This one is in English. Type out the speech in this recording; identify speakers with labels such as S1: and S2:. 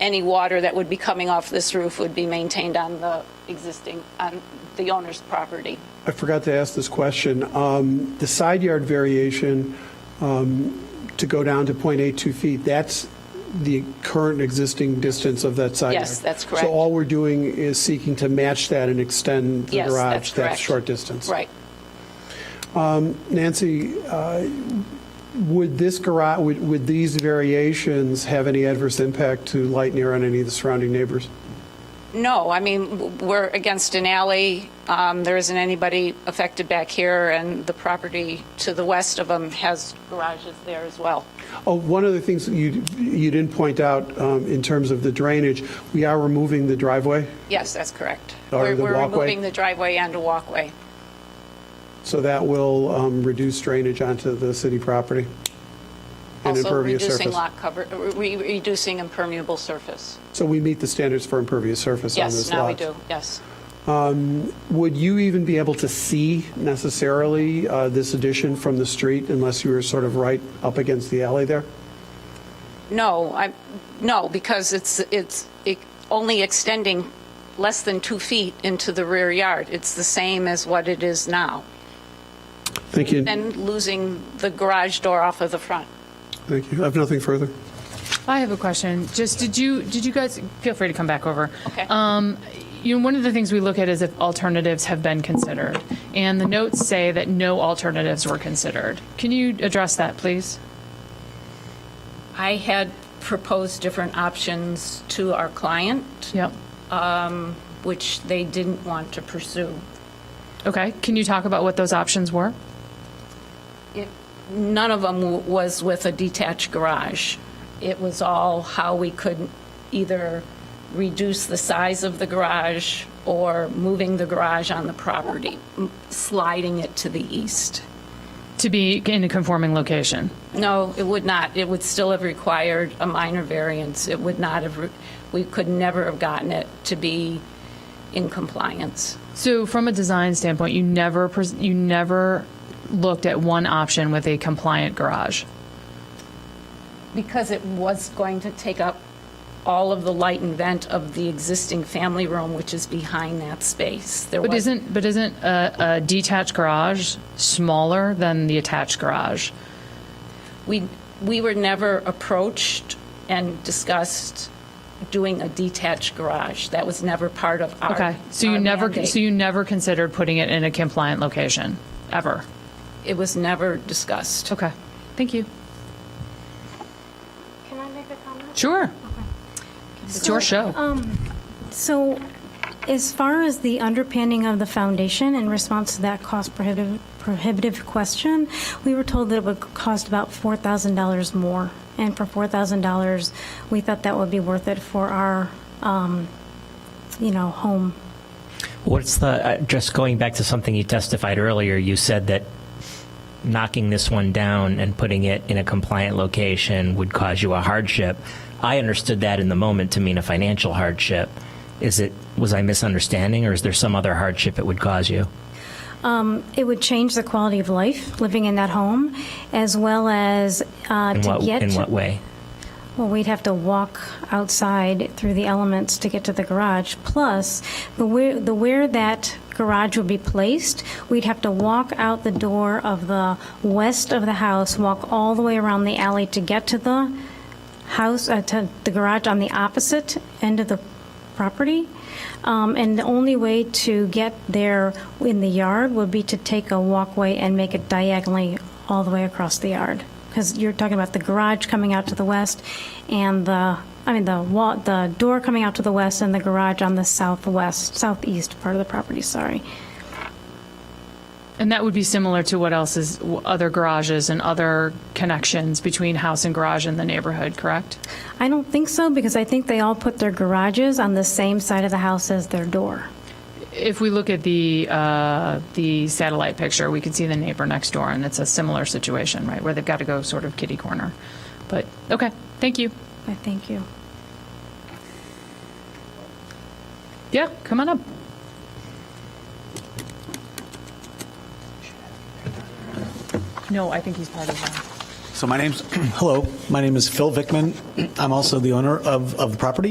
S1: any water that would be coming off this roof would be maintained on the existing, on the owner's property.
S2: I forgot to ask this question. Um, The side yard variation um, to go down to .82 feet, that's the current existing distance of that side yard?
S1: Yes, that's correct.
S2: So all we're doing is seeking to match that and extend the
S1: Yes,
S2: garage?
S1: that's correct.
S2: short distance?
S1: Right.
S2: Nancy, uh, would this garage, would would these variations have any adverse impact to light near on any of the surrounding neighbors?
S1: No, I mean, w- we're against an alley. Um, There isn't anybody affected back here, and the property to the west of them has garages there as well.
S2: Oh, one of the things that you you didn't point out um, in terms of the drainage, we are removing the driveway?
S1: Yes, that's correct.
S2: Or
S1: We're-
S2: the
S1: We're
S2: walkway?
S1: removing the driveway and a walkway.
S2: So that will um, reduce drainage onto the city property and impervious
S1: Also reducing
S2: surface.
S1: lot cover, re- re- reducing impermeable surface.
S2: So we meet the standards for impervious surface on
S1: Yes,
S2: this lot.
S1: now we do, yes.
S2: Would you even be able to see necessarily uh, this addition from the street unless you were sort of right up against the alley there?
S1: No, I, no, because it's, it's it- only extending less than two feet into the rear yard. It's the same as what it is now,
S2: Thank you.
S1: and losing the garage door off of the front.
S2: Thank you. I have nothing further.
S3: I have a question. Just did you did you guys feel free to come back over?
S1: Okay.
S3: Um, you know, one of the things we look at is if alternatives have been considered, and the notes say that no alternatives were considered. Can you address that, please?
S1: I had proposed different options to our client,
S3: Yep.
S1: which they didn't want to pursue.
S3: Okay. Can you talk about what those options were?
S1: It- None of them w- was with a detached garage. It was all how we could either reduce the size of the garage or moving the garage on the property, m- sliding it to the east.
S3: To be in a conforming location.
S1: No, it would not. It would still have required a minor variance. It would not have, re- we could never have gotten it to be in compliance.
S3: So, from a design standpoint, you never pres- you never looked at one option with a compliant garage.
S1: Because it was going to take up all of the light and vent of the existing family room, which is behind that space. There
S3: But
S1: was-
S3: isn't but isn't a, a detached garage smaller than the attached garage?
S1: We, we were never approached and discussed doing a detached garage. That was never part of our.
S3: Okay, so you
S1: our
S3: never,
S1: mandate.
S3: so you never considered putting it in a compliant location, ever?
S1: It was never discussed.
S3: Okay, thank you.
S4: Can I make a comment?
S3: Sure. It's your show.
S4: So, as far as the underpinning of the foundation in response to that cost prohibitive, prohibitive question, we were told that it would cost about $4,000 more. And for $4,000, we thought that would be worth it for our, um, you know, home.
S5: What's the, uh, just going back to something you testified earlier, you said that knocking this one down and putting it in a compliant location would cause you a hardship. I understood that in the moment to mean a financial hardship. Is it, was I misunderstanding, or is there some other hardship it would cause you?
S4: It would change the quality of life living in that home, as well as uh,
S5: In
S4: to
S5: what,
S4: get
S5: in
S4: to-
S5: what way?
S4: Well, we'd have to walk outside through the elements to get to the garage. Plus, the where, the where that garage would be placed, we'd have to walk out the door of the west of the house, walk all the way around the alley to get to the house, uh, to the garage on the opposite end of the property. Um, and the only way to get there in the yard would be to take a walkway and make it diagonally all the way across the yard. Because you're talking about the garage coming out to the west and the, I mean, the wall, the door coming out to the west and the garage on the southwest, southeast part of the property, sorry.
S3: And that would be similar to what else is, other garages and other connections between house and garage in the neighborhood, correct?
S4: I don't think so because I think they all put their garages on the same side of the house as their door.
S3: If we look at the, uh, the satellite picture, we can see the neighbor next door, and it's a similar situation, right, where they've got to go sort of kitty corner. But, okay, thank you.
S4: I thank you.
S3: Yeah, come on up. No, I think he's part of that.
S6: So my name's, hello, my name is Phil Vickman. I'm also the owner of, of the property.